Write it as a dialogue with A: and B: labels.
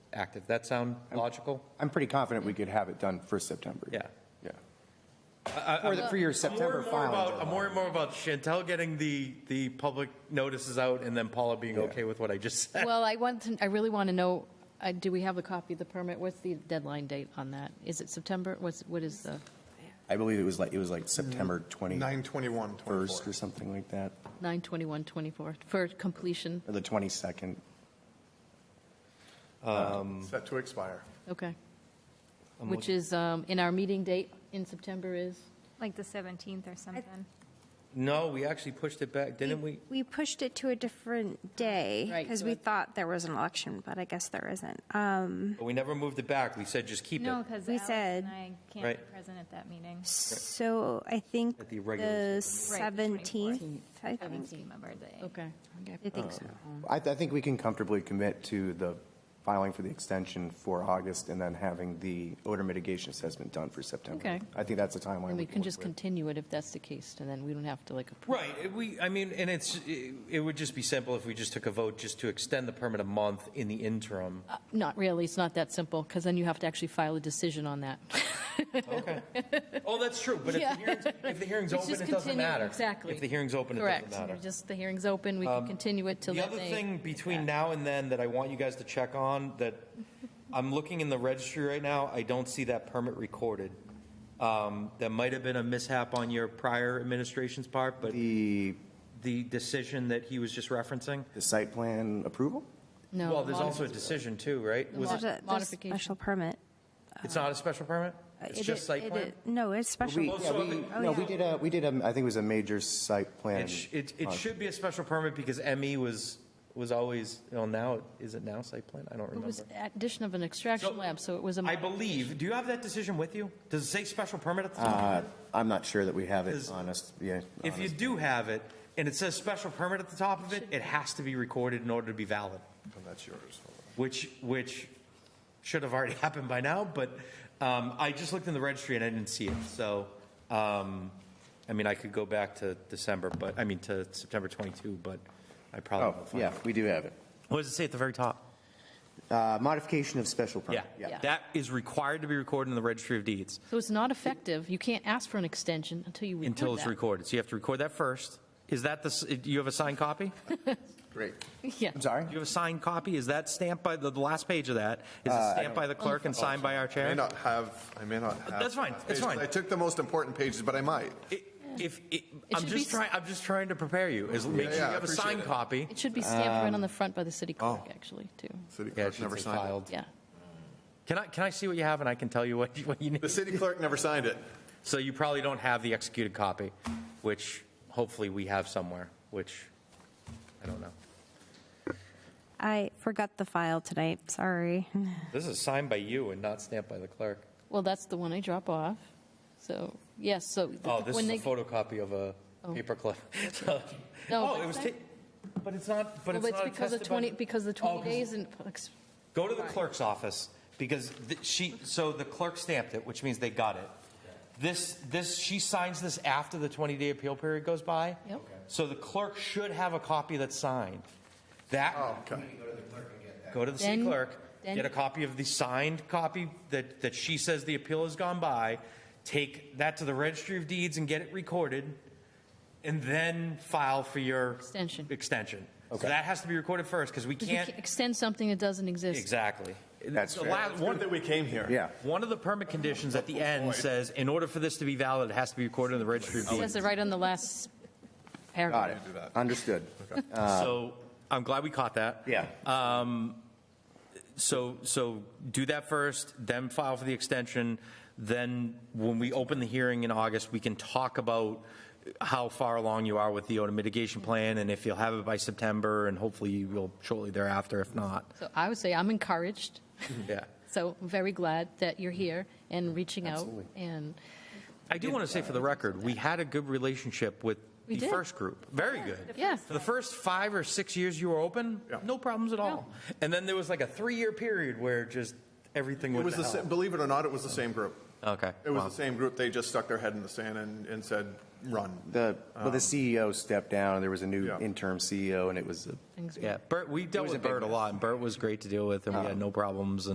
A: active. That sound logical?
B: I'm pretty confident we could have it done for September.
A: Yeah.
B: Yeah.
A: I-
B: For, the, for your
A: I'm more
B: September
A: and more
B: filing.
A: about, I'm
B: deadline.
A: more and more about Chantel getting the, the public notices out and then Paula being
B: Yeah.
A: okay with what I just said.
C: Well, I want to, I really want to know, uh, do we have a copy of the permit? What's the deadline date on that? Is it September? What's, what is the
B: I believe it was like, it was like
A: Mm-hmm.
B: September 21st
D: 921,
B: or something like that,
C: 9/21/24 for completion?
B: or the 22nd.
D: Set to expire.
C: Okay. Which is, um, in our meeting date in September is?
E: like the 17th or something.
A: No, we actually pushed it back, didn't we?
F: We pushed it to a different day
C: Right,
F: because
C: so
F: we
C: it-
F: thought there was an election, but I guess there isn't. Um,
A: But we never moved it back. We said just keep it.
E: No, because
F: We
E: Alex
F: said-
E: and I can't be
A: Right.
E: present at that meeting.
F: so I think
A: At the regular
F: the
E: Right, the 24th.
F: seventeenth, I think.
E: Seventeenth, my birthday.
C: Okay.
F: I think so.
B: I, I think we can comfortably commit to the filing for the extension for August and then having the odor mitigation assessment done for September.
C: Okay.
B: I think that's a timeline.
C: And we can
B: work
C: just
B: with.
C: continue it if that's the case, and then we don't have to like. approve.
A: Right, it- we, I mean, and it's, it it would just be simple if we just took a vote just to extend the permit a month in the interim.
C: uh, Not really, it's not that simple, because then you have to actually file a decision on that.
A: Okay. Oh, that's true, but if the
C: Yeah.
A: hearing's, if the hearing's
C: It's
A: open,
C: just
A: it doesn't
C: continue-
A: matter.
C: Exactly.
A: If the hearing's open, it doesn't matter. Um,
C: Correct, just the hearing's open, we can continue it till
A: The
C: that
A: other
C: day.
A: thing between now and then that I want you guys to check on, that I'm looking in the registry right now, I don't see that permit recorded. Um, That might have been a mishap on your prior administration's part, but
B: The,
A: the decision that he was just referencing?
B: the site plan approval?
C: No, um,
A: Well, there's also a
C: modification.
A: decision too, right? Was
F: There's
A: it,
F: a- there's a
C: Modification.
F: special permit.
A: it's not a special permit?
F: Uh,
A: It's
F: it
A: just
F: is-
A: site
F: it
A: plan?
F: is- No, it's special.
B: We,
A: Oh,
B: yeah,
A: so
B: we,
A: the-
F: Oh,
B: no,
F: yeah.
B: we did a, we did a, I think it was a major site plan.
A: It, sh- it, it
B: Uh,
A: should be a special permit because ME was, was always, well, now, it- is it now site plan? I don't
C: It was
A: remember.
C: addition of an extraction lab, so it was a.
A: I believe, do you have that decision with you? Does it say special permit at the top?
B: Uh, I'm not sure that we have it,
A: Is-
B: honest, yeah.
A: If you
B: honest.
A: do have it, and it says special permit at the top of it, it has to be recorded in order to be valid,
D: And that's yours.
A: which, which should have already happened by now, but um, I just looked in the registry and I didn't see it, so, um, I mean, I could go back to December, but, I mean, to September 22, but I probably.
B: Oh,
A: won't find
B: yeah,
A: it.
B: we do have it.
A: What does it say at the very top?
B: Uh, Modification of special permit.
A: Yeah, that is required to be recorded in the registry of deeds
C: So it's not effective. You can't ask for an extension until you record
A: until it's
C: that.
A: recorded, so you have to record that first. Is that the, s- you have a signed copy?
D: Great.
C: Yeah.
B: I'm sorry?
A: Do you have a signed copy? Is that stamped by, the the last page of that,
D: Uh,
A: is it stamped by the clerk and signed by our
D: I may
A: chair?
D: not have, I may not have.
A: That's fine, that's fine.
D: I took the most important pages, but I might.
A: It- If, it- I'm
C: should
A: just
C: be-
A: trying, I'm just trying to prepare you, is make sure
D: yeah,
A: you
D: I
A: have a
D: appreciate
A: signed
D: it.
A: copy.
C: It should be stamped right on the
B: Um,
C: front by the city clerk,
B: oh.
C: actually, too.
A: Yeah,
D: City
A: it
D: clerk
A: should
D: never
A: say
D: signed it.
A: filed.
C: Yeah.
A: Can I, can I see what you have and I can tell you what, you- what you
D: The
A: need?
D: city clerk never signed it.
A: So you probably don't have the executed copy, which hopefully we have somewhere, which, I don't know.
F: I forgot the file tonight, sorry.
A: This is signed by you and not stamped by the clerk.
C: Well, that's the one I drop off. So, yes, so. the-
A: Oh, this
C: when
A: is a
C: they- Oh.
A: photocopy of a paperclip. So-
C: No,
A: Oh,
C: but-
A: it was, ta- but it's not, but
C: Well,
A: it's
C: it's
A: not
C: because
A: attested
C: of
A: by
C: 20,
A: the-
C: because the
A: Oh,
C: 20 days and.
A: Go to the clerk's office because th- she, so the clerk stamped it, which means they got it. This, this, she signs this after the 20-day appeal period goes by.
C: Yep. Okay.
A: So the clerk should have a copy that's signed. That,
B: Oh.
D: Okay.
A: go to the city
C: Then-
A: clerk,
C: then-
A: get a copy of the signed copy that, that she says the appeal has gone by, take that to the registry of deeds and get it recorded, and then file for your.
C: Extension.
A: Extension. So that has to be recorded first because we
C: You can't
A: can't,
C: extend something that doesn't exist.
A: exactly.
B: That's
A: The
B: fair.
A: la- one-
D: that we came here.
B: Yeah.
A: one of the permit conditions at the end says, in order for this to be valid, it has to be recorded in the registry of
C: It says
A: deeds.
C: it right on the last
B: Got
C: paragraph.
B: it. Understood.
A: So
C: Uh,
A: I'm glad we caught that.
B: Yeah.
A: So, so do that first, then file for the extension. Then when we open the hearing in August, we can talk about how far along you are with the odor mitigation plan and if you'll have it by September and hopefully you will shortly thereafter, if not.
C: So I would say I'm encouraged.
A: Yeah.
C: So I'm very glad that you're here and reaching out. And
A: I do want to say for the record, we had a good relationship with
C: We
A: the
C: did.
A: first group. Very good.
C: Yeah.
A: For the first five or six years you were open, no problems at all. And then there was like a three-year period where just everything
D: It
A: went
D: was
A: to
D: the,
A: hell.
D: sa- believe it or not, it was the same group.
A: Okay.
D: It was
A: Wow.
D: the same group. They just stuck their head in the sand and, and said, run.
B: The, well, the CEO stepped down, and there was a new
D: Yeah.
B: interim CEO, and it was a
C: Things-
A: Yeah, Bert, we dealt
B: was
A: with
B: a big
A: Bert a
B: mess.
D: Uh-huh.
A: lot, and Bert was great to deal with, and we had no problems,